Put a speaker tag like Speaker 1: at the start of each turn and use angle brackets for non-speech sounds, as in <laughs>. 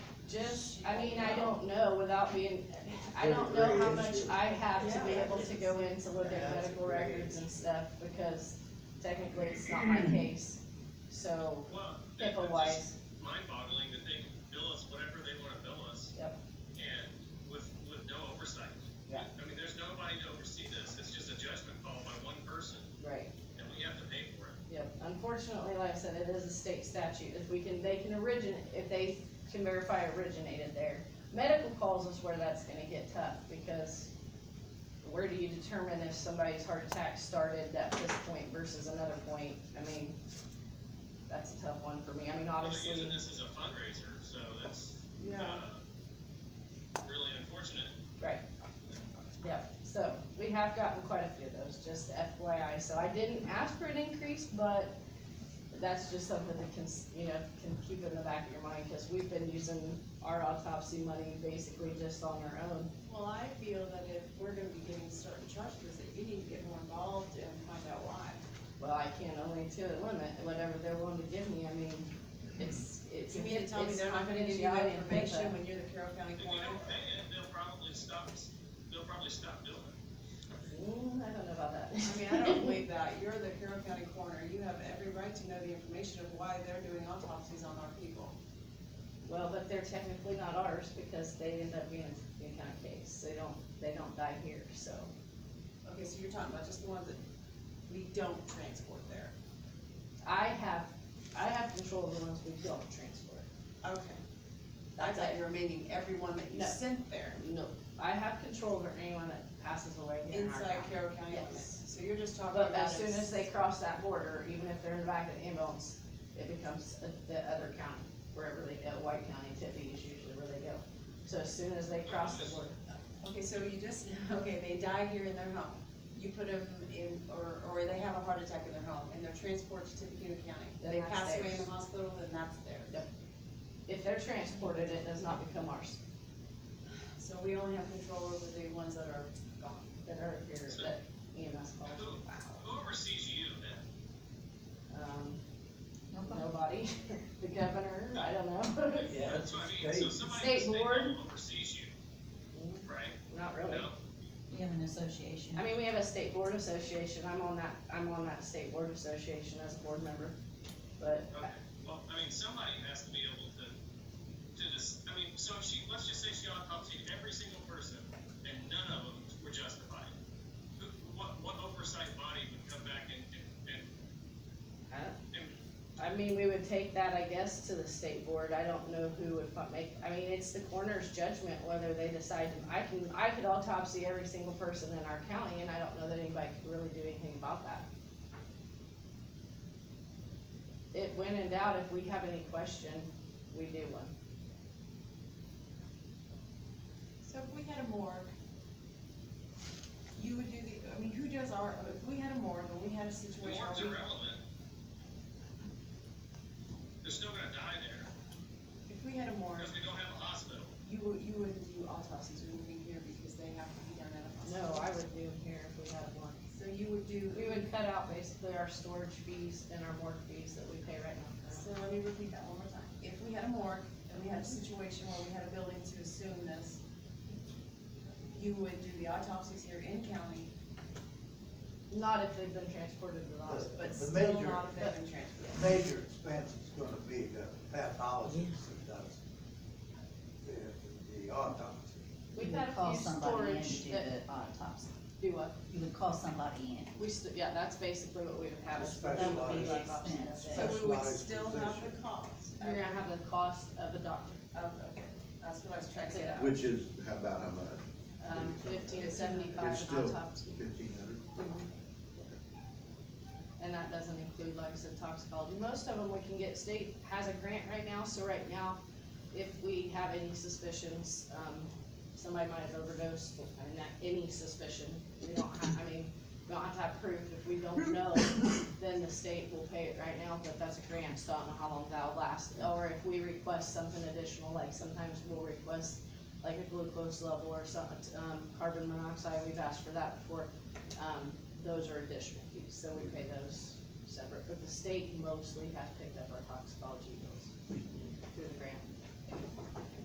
Speaker 1: just, I mean, I don't know without being, I don't know how much I have to be able to go in to look at medical records and stuff, because technically it's not my case, so,
Speaker 2: Well, that-
Speaker 1: HIPAA
Speaker 2: that's
Speaker 1: wise,
Speaker 2: just mind-boggling that they can bill us whatever they wanna bill us.
Speaker 1: Yep.
Speaker 2: And with, with no oversight.
Speaker 1: Yeah.
Speaker 2: I mean, there's nobody to oversee this, it's just a judgment call by one person,
Speaker 1: right.
Speaker 2: and we have to pay for it.
Speaker 1: Yep, unfortunately, like I said, it is a state statute, if we can, they can originate, if they can verify originated there. Medical calls is where that's gonna get tough, because where do you determine if somebody's heart attack started at this point versus another point? I mean, that's a tough one for me, I mean,
Speaker 2: Well, They're
Speaker 1: obviously,
Speaker 2: using this as a fundraiser, so that's, uh, really unfortunate.
Speaker 1: yep, so, we have gotten quite a few of those, just FYI, so I didn't ask for an increase, but that's just something that can, s- you know, can keep in the back of your mind, cause we've been using our autopsy money basically just on our own.
Speaker 3: Well, I feel that if we're gonna be getting certain charges, that you need to get more involved and find out why.
Speaker 1: Well, I can only to a limit, whatever they're willing to give me, I mean, it's, it's.
Speaker 3: You mean to tell me
Speaker 1: it's
Speaker 3: they're not gonna give you
Speaker 1: confidentiality
Speaker 3: that
Speaker 1: and
Speaker 3: information
Speaker 1: HIPAA.
Speaker 3: when you're the Carroll County
Speaker 2: If they
Speaker 3: coroner?
Speaker 2: don't pay it, they'll probably stop, they'll probably stop billing.
Speaker 1: Mm, I don't know about that.
Speaker 3: I mean,
Speaker 1: <laughs>
Speaker 3: I don't believe that. You're the Carroll County coroner. You have every right to know the information of why they're doing autopsies on our people.
Speaker 1: Well, but they're technically not ours because they end up being a Buchanan case, they don't, they don't die here, so.
Speaker 3: Okay, so you're talking about just the ones that we don't transport there.
Speaker 1: I have, I have control of the ones we don't transport.
Speaker 3: Okay. I thought you were meaning everyone that you
Speaker 1: No.
Speaker 3: sent there
Speaker 1: No, I have control over anyone that passes away here in our
Speaker 3: inside
Speaker 1: county.
Speaker 3: Carroll County
Speaker 1: Yes.
Speaker 3: limits. So you're just talking about.
Speaker 1: But as soon
Speaker 3: it's-
Speaker 1: as they cross that border, even if they're in the back of the ambulance, it becomes a- the other county, wherever they go, White County, Tippy is usually where they go. So as soon as they cross the border,
Speaker 3: Okay, so you just, <laughs> okay, they die here in their home. You put them in, or, or they have a heart attack in their home and they're transported to Tippecanoe County.
Speaker 1: Then
Speaker 3: They
Speaker 1: that's
Speaker 3: pass away in
Speaker 1: theirs.
Speaker 3: the hospital, then that's theirs.
Speaker 1: if they're transported, it does not become ours,
Speaker 3: So we only have control over the ones that are gone.
Speaker 1: that are here, that EMS calls.
Speaker 2: Who, who oversees you then?
Speaker 1: Um, nobody, <laughs> the governor, I don't know, <laughs>
Speaker 4: Yeah,
Speaker 2: That's what I mean, so somebody
Speaker 1: State
Speaker 2: at the state
Speaker 1: board.
Speaker 2: level oversees you, right?
Speaker 1: not really.
Speaker 2: No?
Speaker 5: We have an association.
Speaker 1: I mean, we have a state board association, I'm on that, I'm on that state board association as a board member, but
Speaker 2: Okay, well, I mean, somebody has to be able to, to just, I mean, so if she, let's just say she autopsied every single person, and none of them were justified. Who, what, what oversight body would come back and, and, and,
Speaker 1: I mean, we would take that, I guess, to the state board, I don't know who would fu- make, I mean, it's the coroner's judgment whether they decide, to- I can, I could autopsy every single person in our county, and I don't know that anybody could really do anything about that. It, when in doubt, if we have any question, we do one.
Speaker 3: So if we had a morgue, you would do the, I mean, who does our, if we had a morgue and we had a
Speaker 2: the
Speaker 3: situation.
Speaker 2: wards
Speaker 3: where we-
Speaker 2: irrelevant? They're still gonna die there,
Speaker 3: If we had a morgue,
Speaker 2: because we don't have a hospital.
Speaker 3: you would, you wouldn't do autopsies, you would be here because they have to be done at a hospital.
Speaker 1: No, I would do them here if we had one.
Speaker 3: So you would do.
Speaker 1: We would cut out basically our storage fees and our morgue fees that we pay right now.
Speaker 3: So let me repeat that one more time. If we had a morgue and we had a situation where we had a building to assume this, you would do the autopsies here in county,
Speaker 1: Not if they've been transported to the hospital.
Speaker 3: but
Speaker 4: The
Speaker 3: still
Speaker 4: major-
Speaker 3: not if they've been transferred.
Speaker 4: major expense is gonna be the pathologist that does the, the autopsy.
Speaker 1: We've
Speaker 5: You
Speaker 1: had
Speaker 5: would call
Speaker 1: a few
Speaker 5: somebody in to
Speaker 1: storage
Speaker 5: do
Speaker 1: that
Speaker 5: the autopsy.
Speaker 1: do what?
Speaker 5: You would call somebody in.
Speaker 1: We, st- yeah, that's basically what we would have. is
Speaker 4: That
Speaker 1: them
Speaker 4: would be
Speaker 1: be
Speaker 4: the
Speaker 1: like option
Speaker 5: expense.
Speaker 1: of
Speaker 3: So
Speaker 1: it.
Speaker 3: we would
Speaker 4: Specialized
Speaker 3: still have the
Speaker 4: physician.
Speaker 3: cost of,
Speaker 1: You're gonna have the cost of a doctor,
Speaker 3: of, okay, that's what I was trying to
Speaker 1: That's it.
Speaker 3: say.
Speaker 6: Which is, how about how much?
Speaker 1: um, fifteen seventy-five
Speaker 6: It's still
Speaker 1: an autopsy.
Speaker 6: fifteen hundred?
Speaker 1: And that doesn't include, like I said, toxicology. Most of them we can get, state has a grant right now, so right now, if we have any suspicions, um, somebody might have overdosed, I mean, not any suspicion, we don't have, I mean, we don't have to have proof. If we don't know, then the state will pay it right now, but that's a grant, so I don't know how long that'll last. Or if we request something additional, like sometimes we'll request like a glucose level or something, um, carbon monoxide, we've asked for that before. Um, those are additional fees, so we pay those separate, but the state mostly has picked up our toxicology bills through the grant.